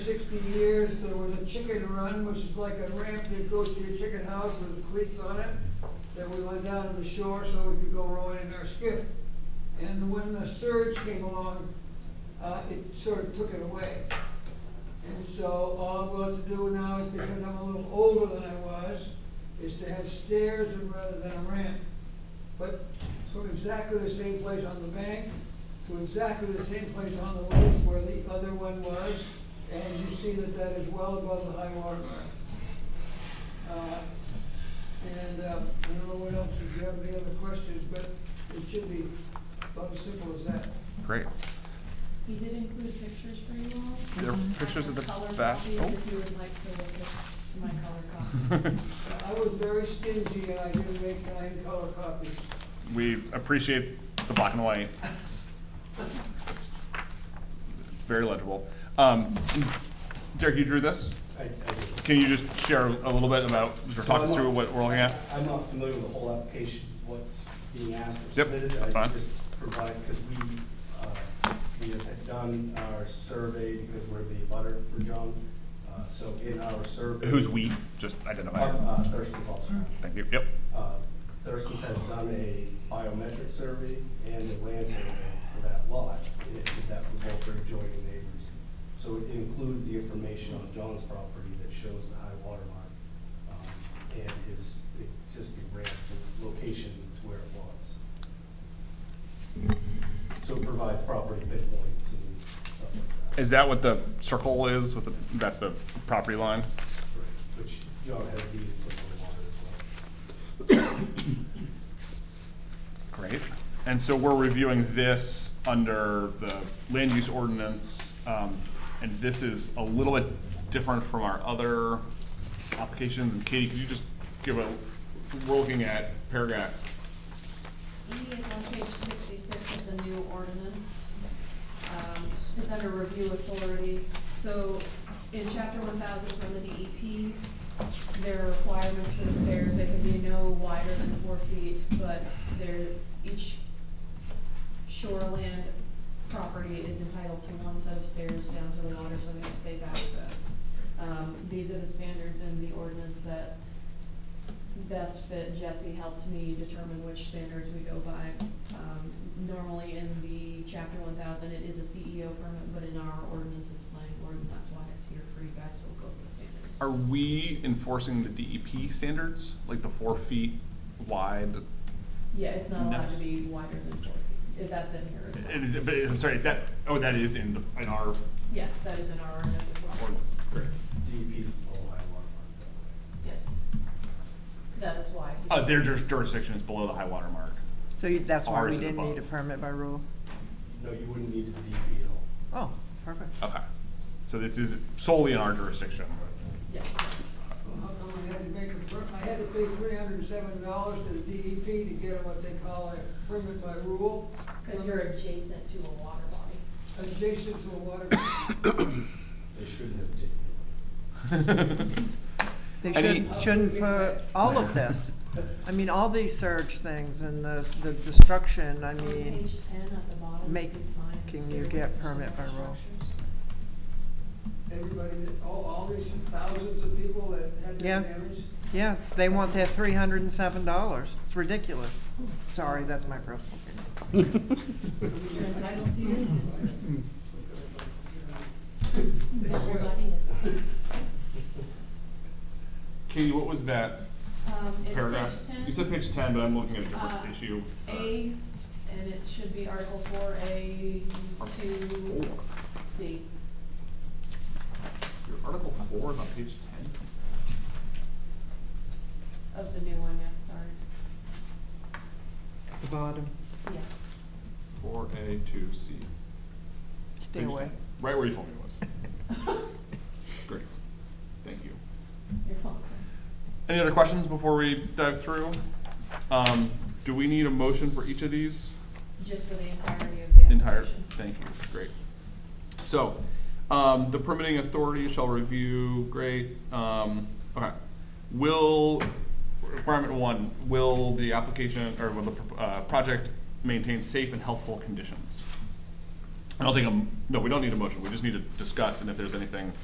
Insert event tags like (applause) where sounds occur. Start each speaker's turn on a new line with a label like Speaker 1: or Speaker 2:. Speaker 1: sixty years, there was a chicken run, which is like a ramp that goes to your chicken house with cleats on it, that we went down to the shore so we could go rowing in our skiff. And when the surge came along, uh, it sort of took it away. And so all I'm going to do now is, because I'm a little older than I was, is to have stairs rather than a ramp. But from exactly the same place on the bank to exactly the same place on the lakes where the other one was, and you see that that is well above the high water mark. Uh, And uh, I don't know what else, if you have any other questions, but it should be about as simple as that.
Speaker 2: Great.
Speaker 3: We did include pictures for you all.
Speaker 2: There are
Speaker 3: I
Speaker 2: pictures
Speaker 3: have
Speaker 2: of the
Speaker 3: color
Speaker 2: back-
Speaker 3: copies
Speaker 2: oh.
Speaker 3: If you would like to look at my color copy.
Speaker 2: (laughs)
Speaker 1: Uh, I was very stingy and I didn't make nine color copies.
Speaker 2: we appreciate the black and white. It's very legible. Um, Derek, you drew this.
Speaker 4: I, I do.
Speaker 2: Can you just share a little bit about, or talk us through what we're looking at?
Speaker 4: I'm not familiar with the whole application, what's being asked or
Speaker 2: Yep,
Speaker 4: submitted.
Speaker 2: that's
Speaker 4: I
Speaker 2: fine.
Speaker 4: just provide, because we, uh, we had done our survey, because we're the butter for John. Uh, So in our survey.
Speaker 2: Who's we? Just
Speaker 4: Uh,
Speaker 2: identify.
Speaker 4: uh, Thurston's also.
Speaker 2: Thank you. Yep.
Speaker 4: Uh, Thurston's has done a biometric survey and a land survey for that lot, and it did that for both their adjoining neighbors. So it includes the information on John's property that shows the high water mark, um, and his existing ramp and location to where it was. So it provides property pinpoints and stuff like that,
Speaker 2: Is that what the circle is with the, that's the property line?
Speaker 4: which John has needed for the water as well.
Speaker 2: Great. And so we're reviewing this under the land use ordinance, um, and this is a little bit different from our other applications. And Katie, could you just give a, we're looking at paragraph,
Speaker 3: E is on page sixty-six of the new ordinance. Um, It's under review authority. So in chapter one thousand from the E DEP, there are requirements for the stairs. They can be no wider than four feet, but they're, each shoreland property is entitled to one set of stairs down to the water so they have safe access. Um, these are the standards in the ordinance that best fit. Jesse helped me determine which standards we go by. Um, normally in the chapter one thousand, it is a CEO permit, but in our ordinance it's planning board, and that's why it's here for you guys to look over the standards.
Speaker 2: are we enforcing the DEP standards, like the four feet wide?
Speaker 3: Yeah, it's not allowed
Speaker 2: That's-
Speaker 3: to be wider than four feet, if that's in here as well.
Speaker 2: And is it- but I'm sorry, is that, oh, that is in the, in our
Speaker 3: Yes, that is in our ordinance as well.
Speaker 2: ordinance. Great.
Speaker 4: DEP's below high water mark that way.
Speaker 3: Yes. That is why.
Speaker 2: Uh, their juris- jurisdiction is below the high water mark.
Speaker 5: So you- that's why
Speaker 2: Ours
Speaker 5: we
Speaker 2: is
Speaker 5: didn't need a
Speaker 2: above.
Speaker 5: permit by rule?
Speaker 4: No, you wouldn't need the DEP at all.
Speaker 5: Oh, perfect.
Speaker 2: Okay. So this is solely in our jurisdiction.
Speaker 3: Yes.
Speaker 1: Well, How come I had to make a, per- I had to pay three hundred and seven dollars to the DEP to get what they call a permit by rule,
Speaker 3: Because you're adjacent to a water body.
Speaker 1: adjacent to a water. (coughs)
Speaker 4: They shouldn't have taken it.
Speaker 5: They
Speaker 2: Any-
Speaker 5: shouldn't, shouldn't for all of this. I mean, all these surge things and the, the destruction, I
Speaker 3: On
Speaker 5: mean,
Speaker 3: Page ten at the bottom, you
Speaker 5: make-
Speaker 3: can find.
Speaker 5: can you get
Speaker 3: stairways for
Speaker 5: permit
Speaker 3: similar
Speaker 5: by rule?
Speaker 3: structures.
Speaker 1: Everybody, that- all, all these thousands of people that had
Speaker 5: Yeah.
Speaker 1: their damage.
Speaker 5: yeah, they want their three hundred and seven dollars. It's ridiculous. Sorry, that's my personal opinion.
Speaker 3: You're entitled to it.
Speaker 2: Hmm.
Speaker 3: It's
Speaker 1: Thank you.
Speaker 3: everybody is.
Speaker 2: Katie, what was that
Speaker 3: Um,
Speaker 2: paragraph?
Speaker 3: it's page ten.
Speaker 2: You said page ten, but I'm looking at a different
Speaker 3: Uh,
Speaker 2: issue.
Speaker 3: A, and it should be Article four, A two, C.
Speaker 2: Your article four is on page ten.
Speaker 3: Of the new one, yes, sorry.
Speaker 5: At The bottom,
Speaker 3: Yes. (laughs)
Speaker 2: Four A two C.
Speaker 5: stay away.
Speaker 2: Right where you told me it was. Great. Thank you.
Speaker 3: You're welcome.
Speaker 2: Any other questions before we dive through? Um, do we need a motion for each of these?
Speaker 3: Just for the entirety of the application.
Speaker 2: Entire, thank you, great. So, um, the permitting authority shall review, great, um, okay. Will, requirement one, will the application, or will the, uh, project maintain safe and healthful conditions? I don't think, a m- no, we don't need a motion, we just need to discuss, and if there's anything